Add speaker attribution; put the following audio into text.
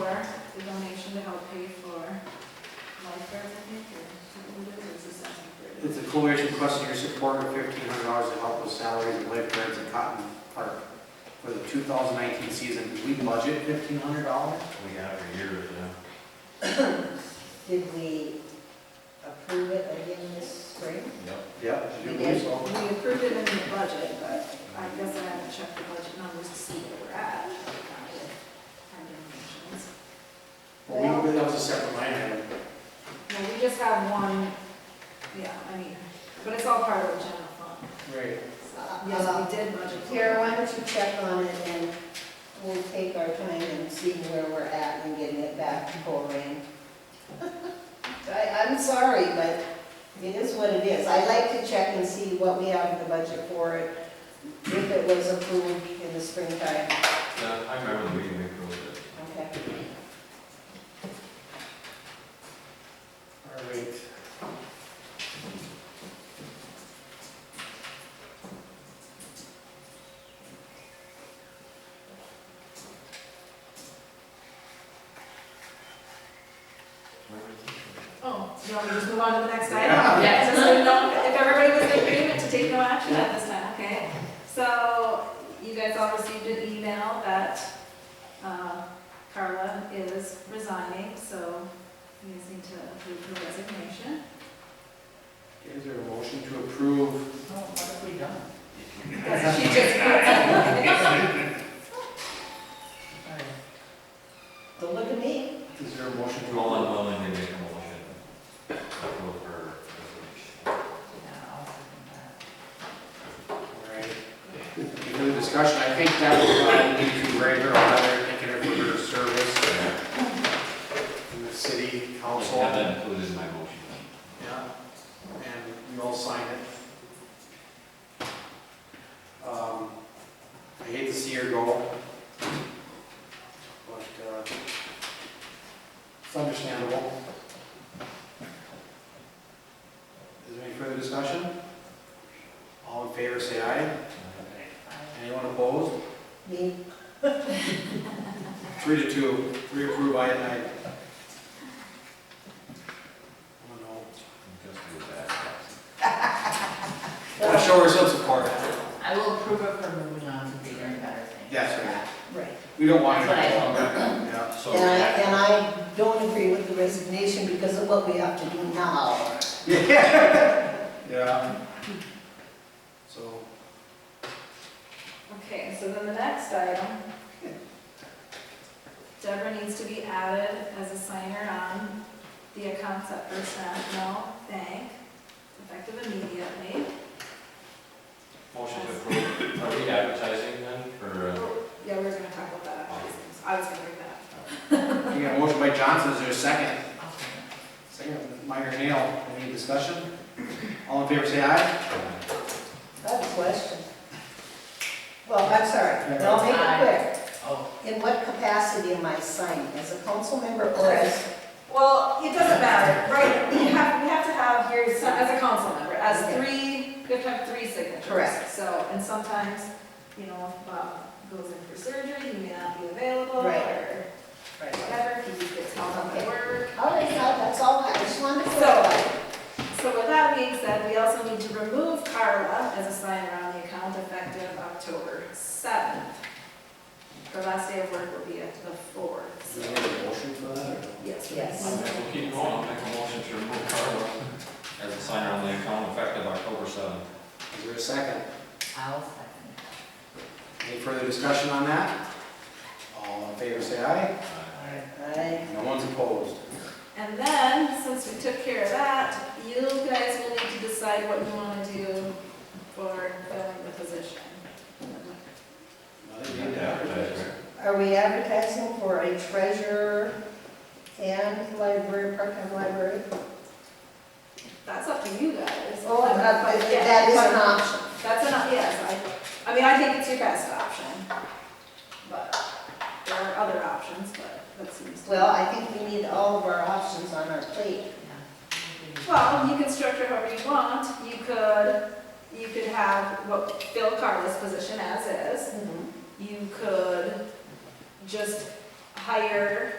Speaker 1: the donation to help pay for lifeguards, I think, or something, it is, it's assessment for
Speaker 2: It's a coalition requesting your support of fifteen hundred dollars to help with salaries and lifeguards at Cotton Park for the two thousand nineteen season. Did we budget fifteen hundred dollars?
Speaker 3: We got every year with them.
Speaker 4: Did we approve it again this spring?
Speaker 3: Yep.
Speaker 2: Yep.
Speaker 4: We did.
Speaker 1: We approved it in the budget, but I guess I haven't checked the budget numbers to see where we're at. Our donations.
Speaker 2: Well, we, that was a separate line item.
Speaker 1: No, we just have one, yeah, I mean, but it's all part of the general fund.
Speaker 2: Right.
Speaker 1: So, Yes, we did budget. for it.
Speaker 4: Kara, why don't you check on it and we'll take our time and see where we're at and getting it back to Corin. I, I'm sorry, but it is what it is. I like to check and see what we have in the budget for it, if it was approved in the springtime,
Speaker 3: Yeah, I remember the meeting we approved it.
Speaker 4: okay?
Speaker 2: All right.
Speaker 1: Oh, you want me to just move on to the next item?
Speaker 2: Yeah.
Speaker 5: Yeah.
Speaker 1: Just so you know, If everybody was in agreement to take no action at this time, okay? So you guys all received an email that uh, Carla is resigning, so you guys need to approve her resignation.
Speaker 2: Is there a motion to approve?
Speaker 4: Oh, what have we done?
Speaker 1: She just-
Speaker 4: Don't look at me.
Speaker 2: Is there a motion to?
Speaker 3: Roland Willing did make a motion. Approve her resignation.
Speaker 2: Alright. Any other discussion? I think that was, uh, we need to write her a letter, thanking her for her service in the city council.
Speaker 3: Have that included in my motion.
Speaker 2: Yeah, and you all sign it. Um, I hate to see her go, but uh, it's understandable. Is there any further discussion? All in favor, say aye. Anyone opposed?
Speaker 4: Me,
Speaker 2: Three to two, three approve, aye and aye. Oh, no.
Speaker 3: Just do that.
Speaker 2: Gotta show her some support.
Speaker 5: I will approve of her moving on to bigger and better things.
Speaker 2: Yes, ma'am.
Speaker 4: right.
Speaker 2: We don't want to.
Speaker 5: That's what
Speaker 2: Yeah.
Speaker 3: So,
Speaker 4: And I, and I don't agree with the resignation because of what we have to do now.
Speaker 2: Yeah. So,
Speaker 1: Okay, so then the next item. Deborah needs to be added as a signer on the accounts at First National Bank, effective immediately.
Speaker 3: motion to approve, are we advertising then, or? uh,
Speaker 1: Oh, Yeah, we were gonna talk about that. I was gonna bring that up.
Speaker 2: you got a motion by Johnson, is there a second? Second, Meyer Nail, any discussion? All in favor, say aye.
Speaker 4: I have a question. Well, I'm sorry, I'll make it
Speaker 5: Oh.
Speaker 4: quick. In what capacity am I signing, as a council member or as?
Speaker 1: Well, it doesn't matter, right, we have, we have to have here, so- as a council member, as
Speaker 4: Okay.
Speaker 1: three, we have to have three signatures.
Speaker 4: Correct.
Speaker 1: So, and sometimes, you know, if Bob goes in for surgery, he may not be available,
Speaker 4: Right.
Speaker 1: or whatever, he just gets held up at
Speaker 4: Okay.
Speaker 1: work.
Speaker 4: All right, now, that's all, I just wanted to
Speaker 1: So-
Speaker 4: clarify.
Speaker 1: So with that being said, we also need to remove Carla as a signer on the account effective October seventh. Her last day of work will be at the fourth,
Speaker 2: Is
Speaker 1: so,
Speaker 2: there a motion for that, or?
Speaker 1: yes.
Speaker 4: Yes.
Speaker 3: We'll keep going, I'll make a motion to remove Carla as a signer on the account effective October seventh.
Speaker 2: Is there a second?
Speaker 5: I'll second.
Speaker 2: Any further discussion on that? All in favor, say aye.
Speaker 4: I,
Speaker 2: No one's opposed.
Speaker 1: And then, since we took care of that, you guys will need to decide what you want to do for filling the position.
Speaker 2: Another
Speaker 3: You have to advertise, right?
Speaker 4: are we advertising for a treasurer and library, part-time library?
Speaker 1: That's up to you guys.
Speaker 4: Oh,
Speaker 1: But-
Speaker 4: that
Speaker 1: but, yeah,
Speaker 4: that is
Speaker 1: but
Speaker 4: an option.
Speaker 1: That's enough, yes, I, I mean, I think it's your best option, but there are other options, but that seems. to-
Speaker 4: Well, I think we need all of our options on our plate.
Speaker 1: Well, you can structure however you want, you could, you could have what Phil Carla's position as is, you could just hire